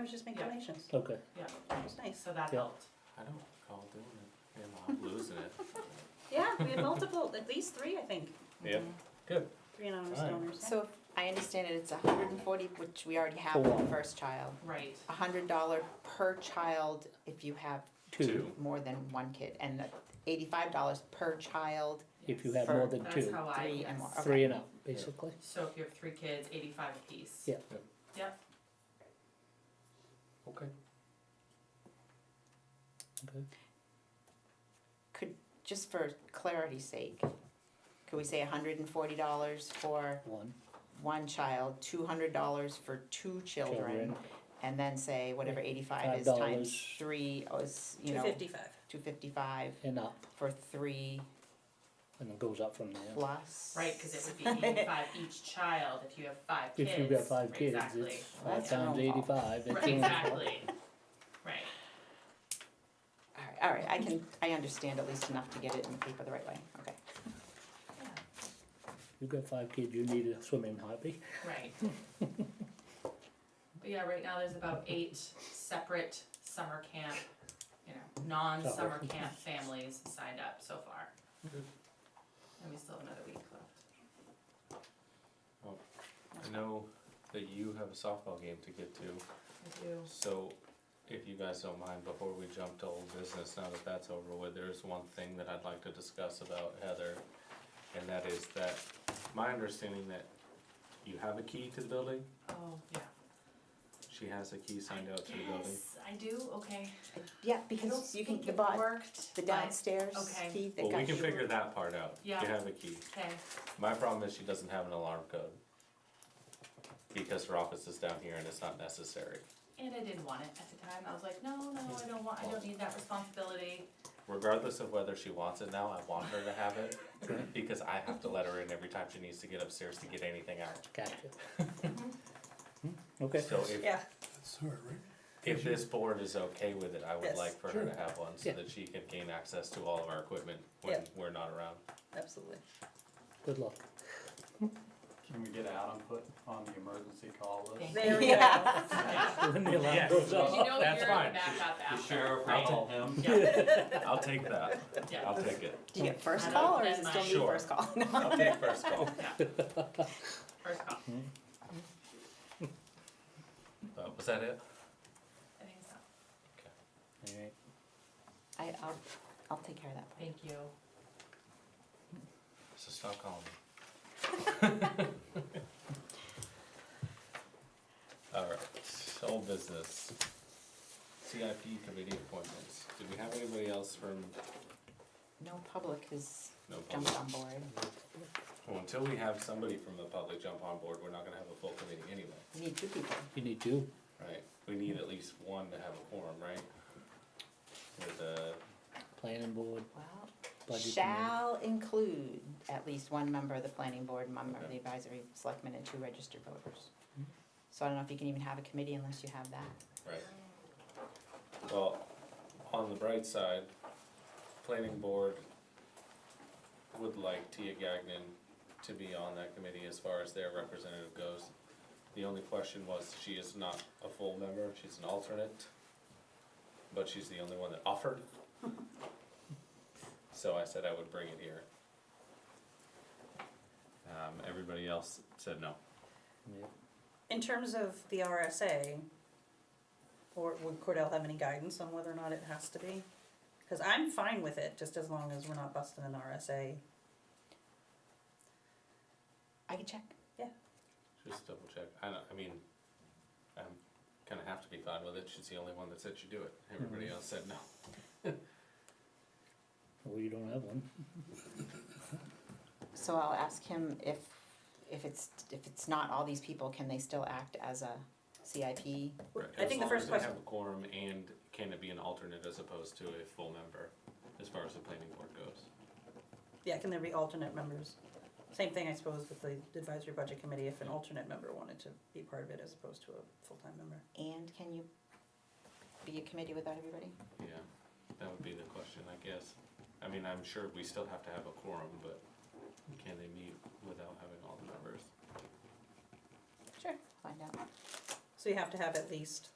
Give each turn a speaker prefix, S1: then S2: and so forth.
S1: was just making
S2: Yeah.
S1: donations.
S3: Okay,
S1: It was nice.
S2: so that
S3: Yeah.
S2: helped.
S4: I don't recall doing it. Yeah, well, I'm losing it.
S1: Yeah, we had multiple, at least three, I think, Mm-hmm.
S4: Yeah. Good.
S1: three anonymous
S3: Alright.
S1: donors. yeah.
S5: So if I understand it, it's a hundred and forty, which we already have for the first child.
S2: Right,
S5: A hundred dollar per child if you have
S3: two,
S4: Two.
S5: more than one kid, and the eighty-five dollars per child,
S3: if you have more than
S2: that's
S3: two,
S2: how I,
S5: three
S2: yes.
S5: and more.
S3: three and up, basically.
S2: So if you have three kids, eighty-five apiece.
S3: Yeah.
S4: Yep.
S2: Yep,
S4: Okay.
S3: Okay.
S5: just for clarity's sake. Could we say hundred and forty dollars for
S3: One,
S5: one child, two hundred dollars for two children,
S3: children,
S5: and then say whatever eighty-five is
S3: Five
S5: times
S3: dollars.
S5: three is, you
S1: Two
S5: know,
S1: fifty-five.
S5: two fifty-five
S3: and up,
S5: for three
S3: and it goes up from there.
S5: plus.
S2: right, cause it would be eighty-five each child if you have five kids.
S3: If you've got five kids,
S2: Exactly,
S3: it's five
S5: That's your
S3: times
S5: own fault.
S3: eighty-five, it's
S2: right,
S3: two hundred
S2: exactly, right,
S5: Alright, alright, I can, I understand at least enough to get it in the paper the right way, okay.
S3: You've got five kids, you need a swimming hobby.
S2: right. But yeah, right now there's about eight separate summer camp, you know, non-summer
S3: Sorry.
S2: camp families signed up so far.
S3: Mm-hmm.
S2: And we still have another week left.
S4: I know that you have a softball game to get to,
S2: We do.
S4: so if you guys don't mind, before we jump to old business, now that that's over with, there is one thing that I'd like to discuss about Heather. And that is that, my understanding that you have a key to the building,
S2: Oh, yeah.
S4: she has a key signed out to the building.
S2: Yes, I do, okay.
S5: Yeah,
S2: I don't
S5: because you can,
S2: think
S5: the
S2: it
S5: bot,
S2: worked,
S5: the
S2: but-
S5: downstairs
S2: okay.
S5: key that got.
S4: Well, we can figure that part out, you
S2: Yeah.
S4: have a key.
S2: Okay,
S4: My problem is she doesn't have an alarm code. Because her office is down here and it's not necessary.
S2: and I didn't want it at the time, I was like, no, no, I don't want, I don't need that responsibility.
S4: Regardless of whether she wants it now, I want her to have it because I have to let her in every time she needs to get upstairs to get anything out.
S3: Gotcha. Hmm, Okay,
S4: So if,
S1: Yeah,
S4: if this board is okay with it, I would
S1: Yes.
S4: like for her to have one so
S3: Yeah.
S4: that she can gain access to all of our equipment when
S1: Yeah.
S4: we're not around.
S1: absolutely.
S3: good luck.
S6: Can we get Adam put on the emergency call list?
S1: There we go.
S5: Yeah.
S3: When the alarm
S4: Yes.
S3: goes
S2: But
S3: off.
S2: you know
S4: that's
S2: you're
S4: fine.
S2: the backup
S6: The
S2: after.
S6: sheriff,
S4: I'll-
S6: I'll call him.
S2: Yeah,
S4: I'll take that. I'll
S2: yeah,
S4: take it.
S5: Do you get first
S2: I don't
S5: call or is it
S2: plan
S5: still
S2: mine.
S5: me first call? No.
S4: I'll take first call.
S2: first call,
S4: Uh, was that it?
S2: I think so,
S3: Alright,
S5: I, I'll, I'll take care of that.
S2: thank you.
S4: So stop calling me. Alright, old business. CIP committee appointments. Did we have anybody else from,
S5: No public has
S4: no public?
S5: jumped on board,
S4: Well, until we have somebody from the public jump on board, we're not gonna have a full committee anyway,
S5: We need two people.
S3: You need two,
S4: right? We need at least one to have a quorum, right? With the,
S3: planning board,
S5: Well,
S3: budget committee.
S5: Shall include at least one member of the planning board, one member of
S4: Okay. Hmm.
S5: the advisory selectmen, and two registered voters. So I don't know if you can even have a committee unless you have that.
S4: right. Well, on the bright side, planning board would like Tia Gagnon to be on that committee as far as their representative goes. The only question was, she is not a full member, she's an alternate, but she's the only one that offered. So I said I would bring it here. Um, everybody else said no.
S3: Yeah.
S1: In terms of the RSA, or would Cordell have any guidance on whether or not it has to be? Cause I'm fine with it, just as long as we're not busting an RSA.
S5: I can check.
S4: Just double check, I don't, I mean, I'm gonna have to be fine with it, she's the only one that said she do it, everybody else said no.
S3: Well, you don't have one.
S5: So I'll ask him if, if it's, if it's not all these people, can they still act as a CIP?
S1: I think the first
S4: As long as they
S1: question,
S4: have a quorum and can it be an alternate as opposed to a full member, as far as the planning board goes.
S1: yeah, can there be alternate members? Same thing, I suppose, with the advisory budget committee, if an alternate member wanted to be part of it as opposed to a full-time member.
S5: And can you be a committee without everybody?
S4: Yeah, that would be the question, I guess. I mean, I'm sure we still have to have a quorum, but can they meet without having all the members?
S5: Sure. Find out.
S1: So you have to have at least